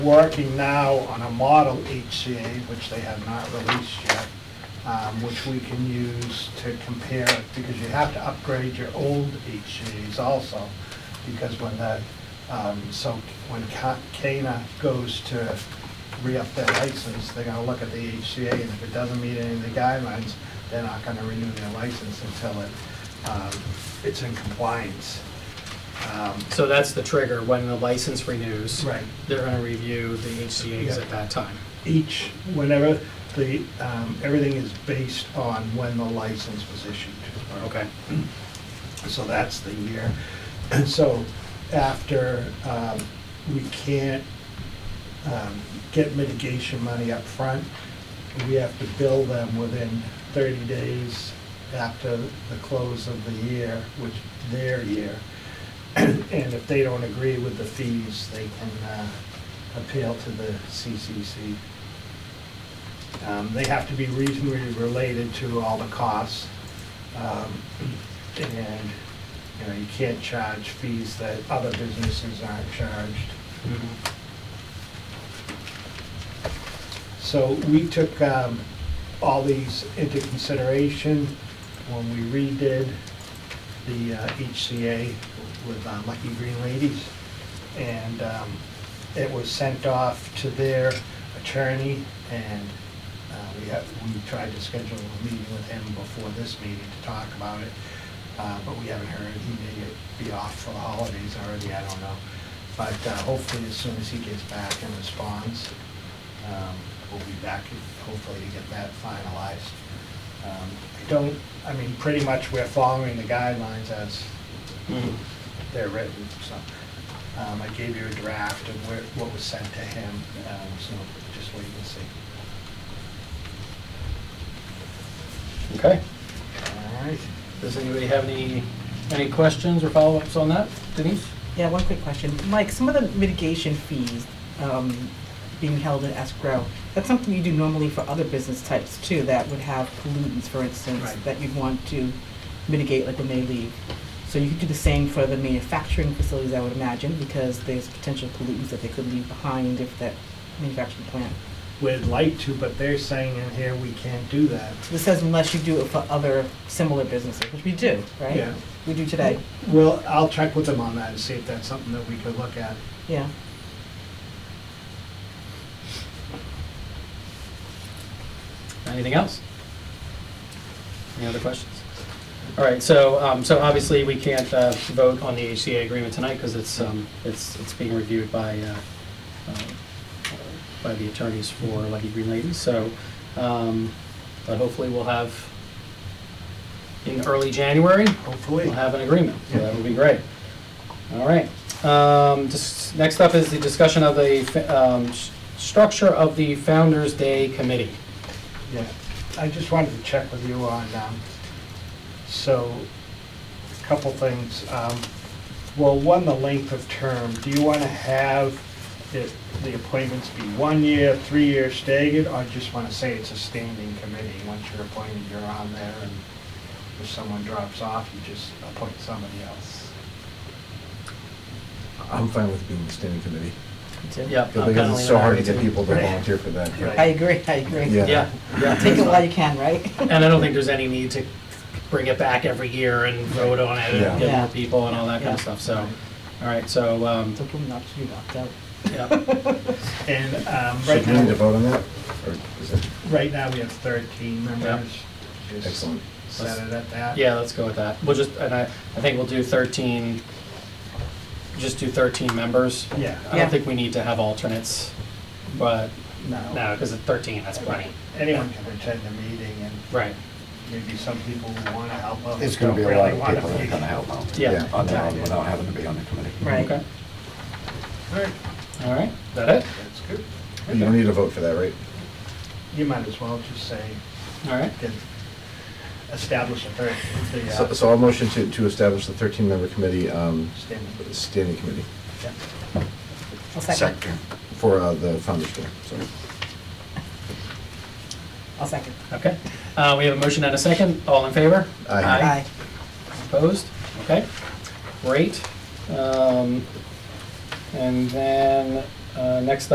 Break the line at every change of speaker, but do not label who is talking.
working now on a model HCA, which they have not released yet, um, which we can use to compare, because you have to upgrade your old HCA's also, because when that, um, so when Ca- Cana goes to re-up their license, they're gonna look at the HCA, and if it doesn't meet any of the guidelines, they're not gonna renew their license until it, um, it's in compliance. Um,
So that's the trigger, when the license renews.
Right.
They're gonna review the HCA's at that time.
each, whenever the, um, everything is based on when the license was issued.
Okay.
So that's the year. And so after, um, we can't um, get mitigation money up front, we have to bill them within 30 days after the close of the year, which their year. And if they don't agree with the fees, they can uh, appeal to the CCC. Um, They have to be reasonably related to all the costs. Um, And, you know, you can't charge fees that other businesses aren't charged. So we took um, all these into consideration when we redid the uh, HCA with uh, Lucky Green Ladies. And um, it was sent off to their attorney, and uh, we had, we tried to schedule a meeting with him before this meeting to talk about it, Uh, but we haven't heard. He may be off for the holidays already, I don't know. But uh, hopefully, as soon as he gets back and responds, um, we'll be back hopefully to get that finalized. Um, I don't, I mean, pretty much we're following the guidelines as
Mm-hmm.
they're written, so. um, I gave you a draft of where, what was sent to him, um, so just wait and see.
Okay.
All right.
Does anybody have any, any questions or follow-ups on that? Denise?
Yeah, one quick question. Mike, some of the mitigation fees um, being held in escrow, that's something you do normally for other business types too, that would have pollutants, for instance,
Right.
that you'd want to mitigate, like when they leave. So you could do the same for the manufacturing facilities, I would imagine, because there's potential pollutants that they could leave behind if that manufacturing plant.
We'd like to, but they're saying in here we can't do that.
This says unless you do it for other similar businesses, which we do, right?
Yeah.
We do today,
Well, I'll check with them on that and see if that's something that we could look at.
yeah.
Anything else? Any other questions? All right, so, um, so obviously, we can't uh, vote on the HCA agreement tonight because it's, um, it's, it's being reviewed by, uh, uh, by the attorneys for Lucky Green Ladies, so, um, but hopefully we'll have, in early January,
Hopefully.
we'll have an agreement, so that would be great. All right, um, just, next up is the discussion of the, fa- um, s- structure of the Founder's Day Committee.
Yeah, I just wanted to check with you on, um, so, a couple things. Um, Well, one, the length of term. Do you want to have it- the appointments be one year, three year staggered, or just want to say it's a standing committee? Once you're appointed, you're on there, and if someone drops off, you just appoint somebody else.
I'm fine with being the standing committee,
Me too.
Yeah.
Oh,
I'm kinda
because it's
leaning
so
that
hard
way
to get
too.
people to
Right.
volunteer for that.
Right.
I agree, I agree.
Yeah.
Yeah,
Take it
yeah.
while you can, right?
And I don't think there's any need to bring it back every year and vote on it
Yeah.
and get
Yeah.
more people and all that kind of stuff, so, all right, so, um,
So give them an opportunity to opt out.
yeah.
And um,
So
right
do we need to
now,
vote on that? Or is it,
right now, we have 13 members. Just
excellent.
Set it at that.
Yeah, let's go with that. We'll just, and I, I think we'll do thirteen, just do thirteen members.
Yeah.
I
Yeah.
don't think we need to have alternates, but, no, because thirteen, that's plenty.
Anyone can attend the meeting, and
Right,
maybe some people who want to help others.
It's gonna be
don't
a lot
really
of
wanna
people that are
be-
gonna help out
yeah.
on their own without having to be on the committee.
Right.
Okay,
All right,
all right, is that it?
That's good.
You don't need to vote for that, right?
You might as well just say,
All right,
get, establish a third, the,
So-
uh,
So I'll motion to, to establish the 13-member committee, um,
standing.
standing committee
Yeah.
I'll second.
for uh, the Founder's Day, sorry.
I'll second.
okay. Uh, we have a motion and a second. All in favor?
Aye.
Aye.
Opposed? Okay, great. Um, And then, uh, next